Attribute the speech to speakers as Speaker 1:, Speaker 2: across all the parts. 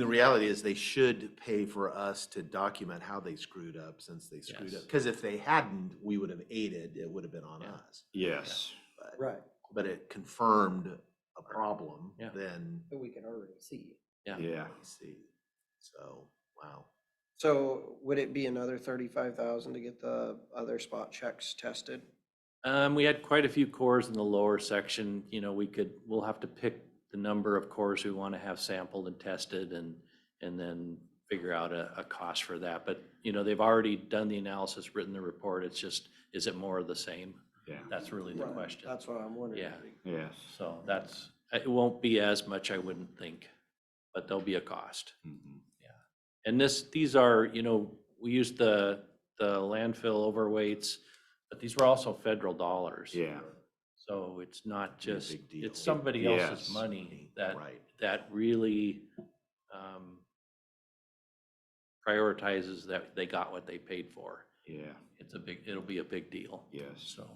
Speaker 1: The reality is they should pay for us to document how they screwed up since they screwed up.
Speaker 2: Yes.
Speaker 1: Because if they hadn't, we would have aided, it would have been on
Speaker 2: Yeah.
Speaker 1: us.
Speaker 3: Yes.
Speaker 1: But-
Speaker 4: Right,
Speaker 1: But it confirmed a problem,
Speaker 2: Yeah.
Speaker 1: then
Speaker 4: that we can already see.
Speaker 2: Yeah.
Speaker 3: Yeah.
Speaker 1: we see. So, wow.
Speaker 4: So would it be another thirty-five thousand to get the other spot checks tested?
Speaker 2: Um, we had quite a few cores in the lower section, you know, we could, we'll have to pick the number of cores we want to have sampled and tested and, and then figure out a, a cost for that. But, you know, they've already done the analysis, written the report. It's just, is it more of the same?
Speaker 3: Yeah.
Speaker 2: That's really the
Speaker 4: Right,
Speaker 2: question.
Speaker 4: That's what I'm wondering.
Speaker 2: Yeah.
Speaker 3: Yes.
Speaker 2: So that's, it won't be as much, I wouldn't think, but there'll be a cost.
Speaker 3: Mhm.
Speaker 2: And this, these are, you know, we used the, the landfill overweights, but these were also federal dollars.
Speaker 3: Yeah.
Speaker 2: So it's not
Speaker 1: Be a
Speaker 2: just,
Speaker 1: big deal.
Speaker 2: it's somebody else's
Speaker 3: Yes.
Speaker 2: money that,
Speaker 1: Right.
Speaker 2: that really um, prioritizes that they got what they paid for.
Speaker 3: Yeah.
Speaker 2: It's a big, it'll be a big deal.
Speaker 3: Yes.
Speaker 2: So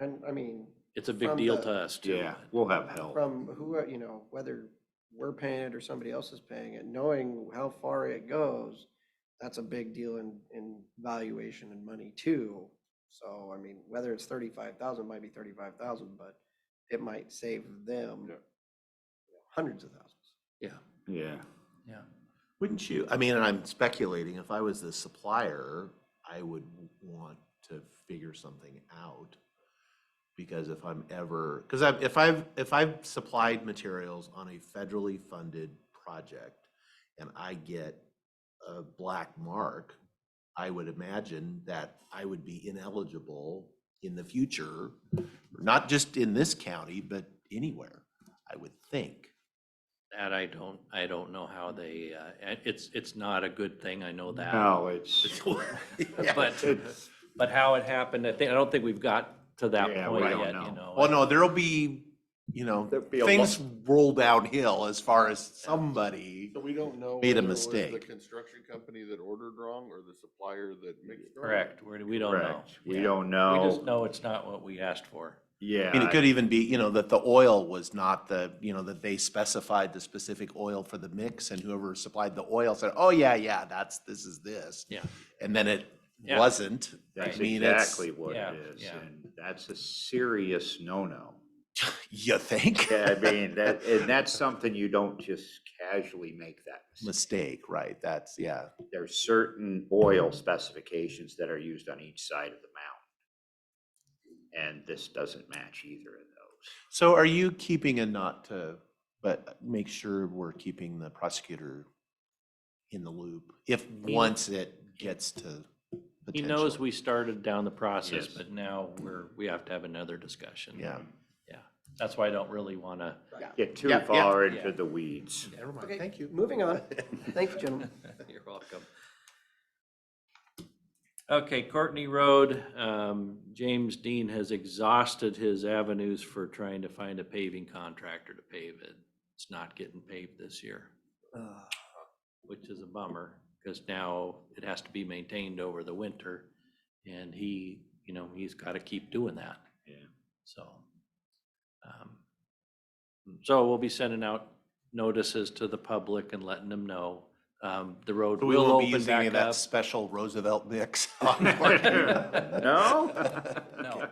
Speaker 4: And I mean,
Speaker 2: it's a big
Speaker 4: From
Speaker 2: deal
Speaker 4: the-
Speaker 2: to us too.
Speaker 3: Yeah. We'll have help.
Speaker 4: from who, you know, whether we're paying it or somebody else is paying it, knowing how far it goes, that's a big deal in, in valuation and money too. So, I mean, whether it's thirty-five thousand, might be thirty-five thousand, but it might save them
Speaker 3: Yeah.
Speaker 4: hundreds of thousands.
Speaker 2: Yeah,
Speaker 3: Yeah.
Speaker 2: yeah.
Speaker 1: Wouldn't you, I mean, and I'm speculating, if I was the supplier, I would want to figure something out. Because if I'm ever, because I've, if I've, if I've supplied materials on a federally funded project and I get a black mark, I would imagine that I would be ineligible in the future, not just in this county, but anywhere, I would think.
Speaker 2: That I don't, I don't know how they, uh, and it's, it's not a good thing, I know that.
Speaker 3: No, it's.
Speaker 2: But-
Speaker 3: it's-
Speaker 2: But how it happened, I think, I don't think we've got to that
Speaker 3: Yeah, we
Speaker 2: point
Speaker 3: don't
Speaker 2: yet,
Speaker 3: know.
Speaker 2: you know.
Speaker 1: Well, no, there'll be, you know,
Speaker 5: There'd be a lot-
Speaker 1: things roll downhill as far as somebody.
Speaker 5: So we don't know.
Speaker 1: Made a
Speaker 5: whether it was The
Speaker 1: mistake.
Speaker 5: construction company that ordered wrong or the supplier that mixed. wrong.
Speaker 2: Correct, we, we don't know.
Speaker 3: Correct. We
Speaker 2: Yeah.
Speaker 3: don't
Speaker 2: We just
Speaker 3: know.
Speaker 2: know it's not what we asked for.
Speaker 3: Yeah.
Speaker 1: And it could even be, you know, that the oil was not the, you know, that they specified the specific oil for the mix and whoever supplied the oil said, oh, yeah, yeah, that's, this is this.
Speaker 2: Yeah.
Speaker 1: And then it
Speaker 2: Yeah.
Speaker 1: wasn't. I
Speaker 3: That's
Speaker 1: mean, it's-
Speaker 3: exactly what
Speaker 2: Yeah,
Speaker 3: it is.
Speaker 2: yeah.
Speaker 3: And that's a serious no-no.
Speaker 1: You think?
Speaker 3: Yeah, I mean, that, and that's something you don't just casually make that mistake.
Speaker 1: Mistake, right? That's, yeah.
Speaker 3: there's certain oil specifications that are used on each side of the mountain. And this doesn't match either of those.
Speaker 1: So are you keeping a not to, but make sure we're keeping the prosecutor in the loop if
Speaker 2: He-
Speaker 1: once it gets to
Speaker 2: He knows
Speaker 1: potential.
Speaker 2: we started down the process,
Speaker 3: Yes.
Speaker 2: but now we're, we have to have another discussion.
Speaker 1: Yeah.
Speaker 2: That's why I don't really want to.
Speaker 3: Get too
Speaker 1: Yeah, yeah,
Speaker 3: far
Speaker 2: yeah.
Speaker 3: into the weeds.
Speaker 1: Never mind,
Speaker 4: Okay,
Speaker 1: thank you.
Speaker 4: Moving on. Thank you, gentlemen.
Speaker 2: You're welcome. Okay, Courtney Road, um, James Dean has exhausted his avenues for trying to find a paving contractor to pave it. It's not getting paved this year,
Speaker 4: Ugh.
Speaker 2: which is a bummer, because now it has to be maintained over the winter. And he, you know, he's got to keep doing that.
Speaker 3: Yeah.
Speaker 2: So. um, So we'll be sending out notices to the public and letting them know. Um, The road
Speaker 1: We
Speaker 2: will
Speaker 1: will be
Speaker 2: open
Speaker 1: using any
Speaker 2: back
Speaker 1: of that
Speaker 2: up.
Speaker 1: special Roosevelt mix.
Speaker 3: No?
Speaker 2: No.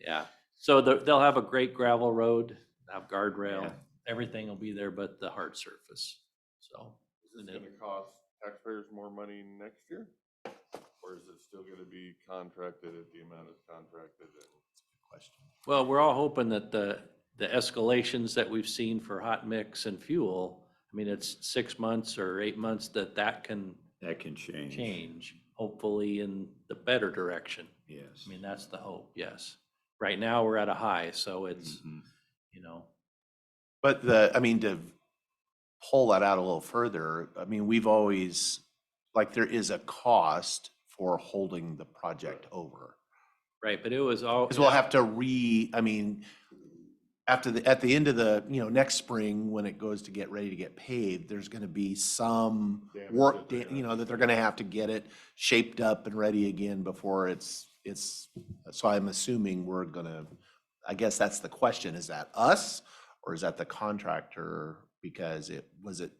Speaker 2: Yeah, so the- they'll have a great gravel road, have guardrail,
Speaker 3: Yeah.
Speaker 2: everything will be there but the hard surface. So
Speaker 5: Is this gonna cost taxpayers more money next year? Or is it still gonna be contracted at the amount it's contracted and?
Speaker 2: Well, we're all hoping that the, the escalations that we've seen for hot mix and fuel, I mean, it's six months or eight months that that can
Speaker 3: That can change.
Speaker 2: change, hopefully in the better direction.
Speaker 3: Yes.
Speaker 2: I mean, that's the hope, yes. Right now, we're at a high, so
Speaker 1: Mm.
Speaker 2: it's,
Speaker 3: Mhm.
Speaker 2: you know,
Speaker 1: But the, I mean, to pull that out a little further, I mean, we've always, like, there is a cost for holding the project over.
Speaker 2: right, but it was all.
Speaker 1: Because we'll have to re, I mean, after the, at the end of the, you know, next spring, when it goes to get ready to get paved, there's gonna be some
Speaker 5: Damage
Speaker 1: work,
Speaker 5: that they're
Speaker 1: da- you
Speaker 5: gonna-
Speaker 1: know, that they're gonna have to get it shaped up and ready again before it's, it's, so I'm assuming we're gonna, I guess that's the question, is that us? Or is that the contractor? Because it, was it